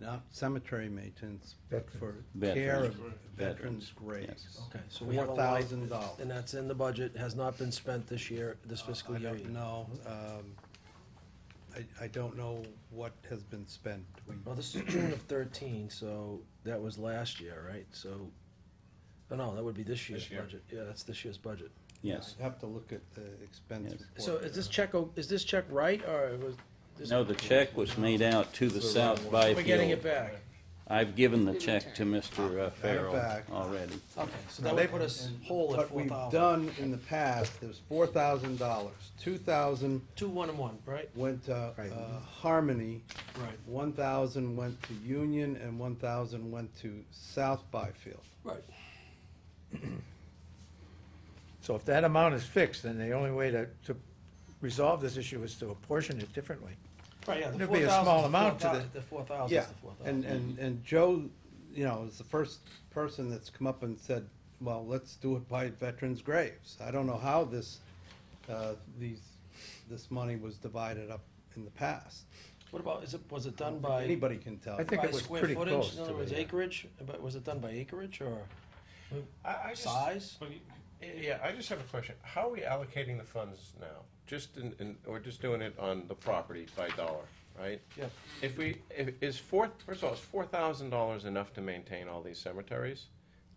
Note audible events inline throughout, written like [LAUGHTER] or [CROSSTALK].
not cemetery maintenance, but for Veterans. care of Veterans, veterans' graves. Okay, so we Four have a line, thousand and dollars. that's in the budget, has not been spent this year, this fiscal I year. don't either. know, um, I, I don't know what has been spent. We- Well, this is June of thirteen, so that was last year, right? So, oh no, that would be this year's year. budget. Yeah, that's this year's budget. Yes. I'd have to look at the expense Yes. report. So is this check, o- is this check right, or was? this- No, the check was made out to the South We're getting it Byfield. back. I've given the check to Mr. Farrell back. already. Okay, so that would put us whole at What four we've thousand. done in the past, there's four thousand dollars, two thousand Two, one, and one, right? went to uh, Harmony, Right. one thousand went to Union, and one thousand went to South Byfield. Right. So if that amount is fixed, then the only way to, to resolve this issue is to apportion it differently. Right, yeah, the It'd be a 4,000 's small the amount to 4,000 the- The four thousand Yeah, is the four thousand. and, and, and Joe, you know, is the first person that's come up and said, well, let's do it by veterans' graves. I don't know how this, uh, these, this money was divided up in the past. What about, is it, was it done by? Anybody can tell. I think by it was square pretty footage? close In other to words, it, yeah. acreage, but was it done by acreage or I, I just, size? well, you- yeah, I just have a question. How are we allocating the funds now? Just in, in, we're just doing it on the property by dollar, right? Yeah. If we, if, is four, first of all, is four thousand dollars enough to maintain all these cemeteries?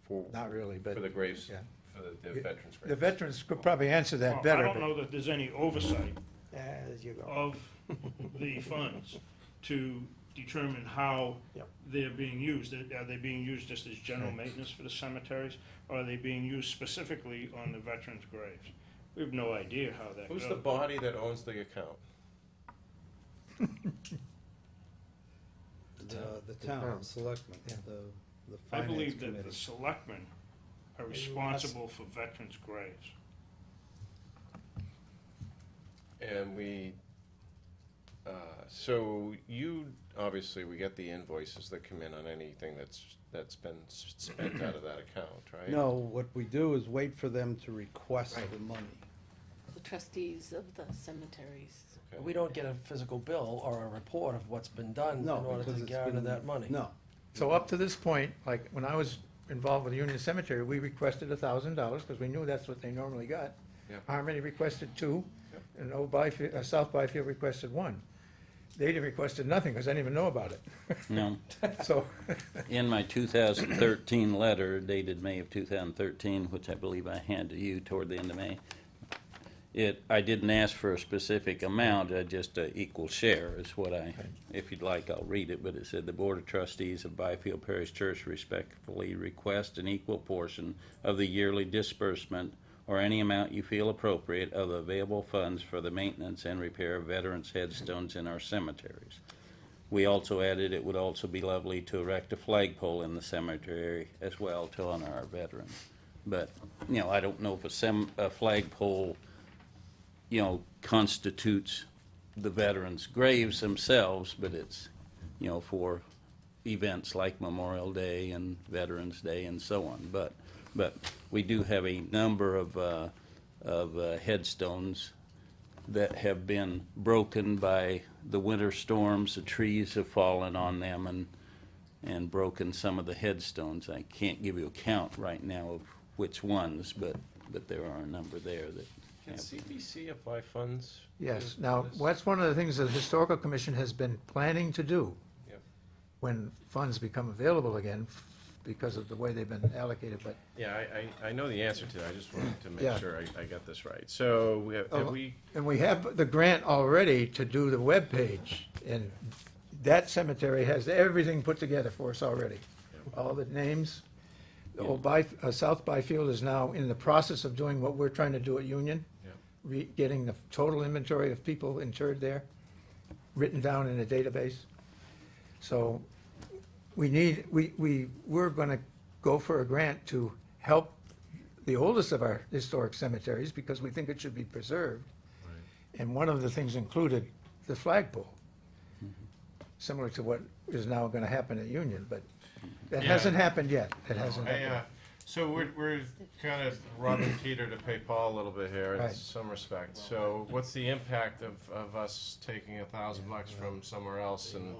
For, Not really, but. for the graves, yeah. for the- the veterans' The graves? veterans could probably answer that Well, better. I don't know that there's any oversight but- Ah, there you go. of the funds to determine how Yep. they're being used. Are are they being used just as general maintenance for the cemeteries? Or are they being used specifically on the veterans' graves? We have no idea how that goes. Who's the body that owns the account? The, the town, the selectmen, Yeah. the, the I finance believe that the committee. selectmen are responsible for veterans' graves. And we, uh, so you, obviously, we get the invoices that come in on anything that's, that's been s- spent out of that account, right? No, what we do is wait for them to request the money. the trustees of the cemeteries. Okay. We don't get a physical bill or a report of what's been done in No, order because to it's garner been- that money. No, So up to this point, like, when I was involved with Union Cemetery, we requested a thousand dollars, because we knew that's what they normally got. Yeah. Harmony requested two, and Old Byfield, uh, South Byfield requested one. They didn't requested nothing, because I didn't even know about [LAUGHS] it. No, So, in my 2013 letter dated May of 2013, which I believe I had to you toward the end of May, it, I didn't ask for a specific amount, I just uh, equal share is what I, if you'd like, I'll read it, but it said, "The Board of Trustees of Byfield Parish Church respectfully request an equal portion of the yearly disbursement or any amount you feel appropriate of the available funds for the maintenance and repair of veterans' headstones in our cemeteries." We also added it would also be lovely to erect a flagpole in the cemetery as well to honor our veterans. But, you know, I don't know if a sem, a flagpole, you know, constitutes the veterans' graves themselves, but it's, you know, for events like Memorial Day and Veterans Day and so on. But, but we do have a number of, uh, of uh, headstones that have been broken by the winter storms. The trees have fallen on them and, and broken some of the headstones. I can't give you a count right now of which ones, but, but there are a number there that Can have. CPC apply funds? yes, to now, this? that's one of the things that the Historical Commission has been planning to do. Yep. When funds become available again, because of the way they've been allocated, but Yeah, I, I, I know the answer to that, I just wanted to Yeah. make sure I, I got this right. So, we have, have Oh. we, And we have the grant already to do the web page, and that cemetery has everything put together for us already. All the names, the old By, uh, South Byfield is now in the process of doing what we're trying to do at Union. Yeah. Re, getting the total inventory of people interred there, written down in a database. So we need, we, we, we're gonna go for a grant to help the oldest of our historic cemeteries because we think it should be preserved. And one of the things included the flagpole, Mm-hmm. similar to what is now gonna happen at Union, but that Yeah. hasn't happened yet. It hasn't I, happened. uh, so we're, we're kind of robbing Peter to pay Paul a little bit here in Right. some respect. So what's the impact of, of us taking a thousand bucks from somewhere else and